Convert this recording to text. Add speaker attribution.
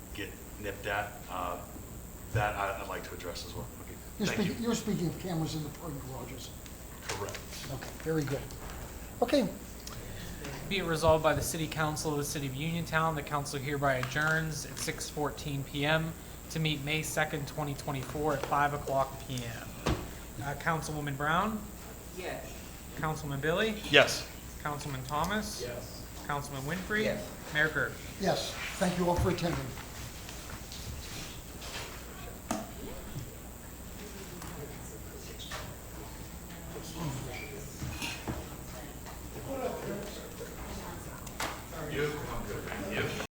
Speaker 1: nipped at, uh, that I- I'd like to address as well.
Speaker 2: You're
Speaker 1: Okay, thank
Speaker 2: speaking,
Speaker 1: you.
Speaker 2: you're speaking of cameras in the parking garages.
Speaker 1: Correct.
Speaker 2: Okay, very good. Okay,
Speaker 3: Be it resolved by the City Council of the City of Uniontown, the council hereby adjourns at six fourteen PM to meet May second, twenty twenty-four at five o'clock PM. Uh, Councilwoman Brown,
Speaker 4: Yes.
Speaker 3: Councilman Billy,
Speaker 1: Yes.
Speaker 3: Councilman Thomas. Yes. Councilman Winfrey.
Speaker 4: Yes.
Speaker 3: Mayor Gerke.
Speaker 2: yes, thank you all for attending.